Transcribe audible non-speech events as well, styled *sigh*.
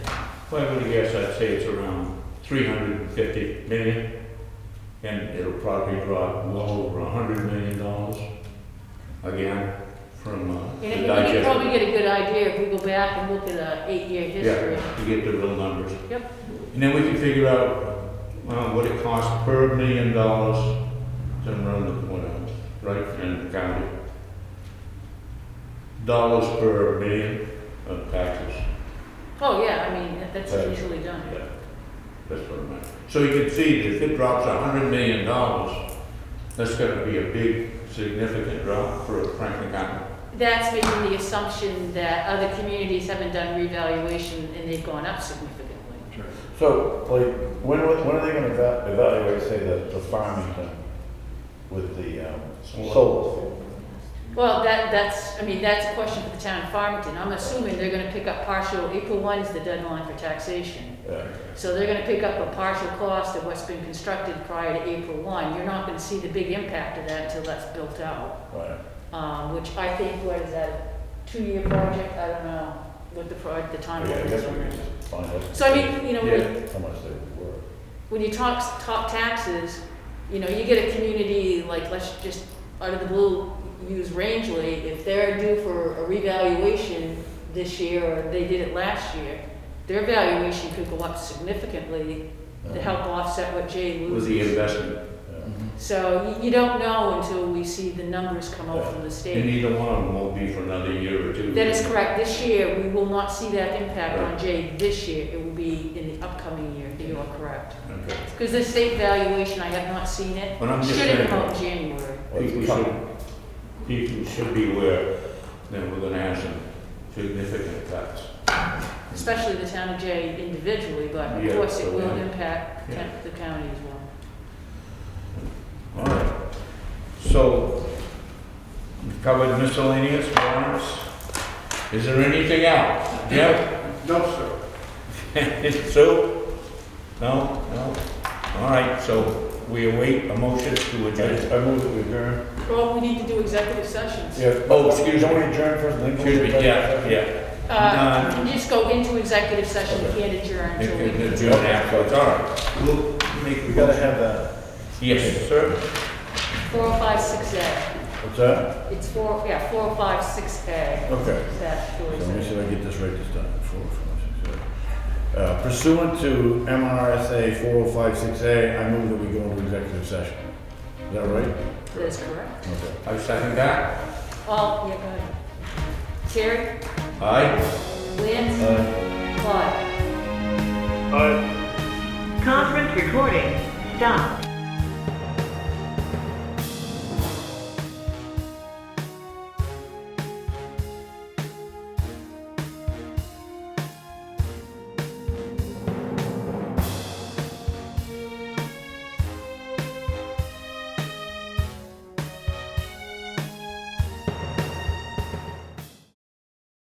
If I were to guess, I'd say it's around three hundred and fifty million, and it'll probably drop well over a hundred million dollars again from uh, And the I mean, we can probably digest. get a good idea if we go back and look at a eight-year history. Yeah, to get the real numbers. Yep, And then we can figure out uh, what it costs per million dollars to run the corner, right, in the county. Dollars per million of taxes. oh, yeah, I mean, that- that's Right. usually done. Yeah, that's what I meant. So you can see that if it drops a hundred million dollars, that's gonna be a big, significant drop for Franklin County. That's making the assumption that other communities haven't done revaluation and they've gone up significantly. So, like, when, are- when are they gonna eva- evaluate, say, the, the farming thing with the, um, Solar. solar? Well, that, that's, I mean, that's a question for the town of Farmington. I'm assuming they're gonna pick up partial, April one is the deadline for taxation. Yeah. So they're gonna pick up a partial cost of what's been constructed prior to April one. You're not gonna see the big impact of that until that's built out. Right, Um, which I think, what is that, a two-year project? I don't know what the project, the yeah, I time guess is we on can that. just find out. So I mean, you know, when, How much they were. when you talk, talk taxes, you know, you get a community, like, let's just, out of the blue, use Rangeley, if they're due for a revaluation this year, or they did it last year, their valuation could go up significantly to help offset what Jay With the loses. investment, Yeah. So you, you don't know until we see the numbers come out from the and state. either one of them won't be for another year or two. That is correct, this year, we will not see that impact on Jay this year, it will be in the upcoming year, you are correct. Okay. Because the state valuation, I have not seen it. But I'm just Should have saying- come out in January. Well, it's People should, coming. people should be aware that we're gonna have some significant cuts. especially the town of Jay individually, but of Yeah, course it will yeah. impact Yeah. the county as well. All right, so we've covered miscellaneous warrants. Is there anything else? Yep, No, sir. *laughs* Sue? No, no? All right, so we await a motion to adjourn. I I move that we adjourn. Well, we need to do executive sessions. Yeah. Oh, excuse Don't we me. adjourn first, and then go to Excuse me, yeah, executive yeah. Uh, you just go into executive session, you Okay. can't adjourn It until we. can adjourn afterwards, all right. We'll session? make- We gotta have that, Yes, sir. Four oh five six A, what's that? it's four, yeah, four oh five six A, Okay. that, So for Let me see example. if I get this right this time. Four, five, six, eight. Uh, Pursuant to MRSA 4056A, I move that we go into executive session. Is that right? that is correct. Okay. I second that. Oh, yeah, go ahead. Terry, Aye. Lynn, Uh, Clyde. Conference recording. Stop.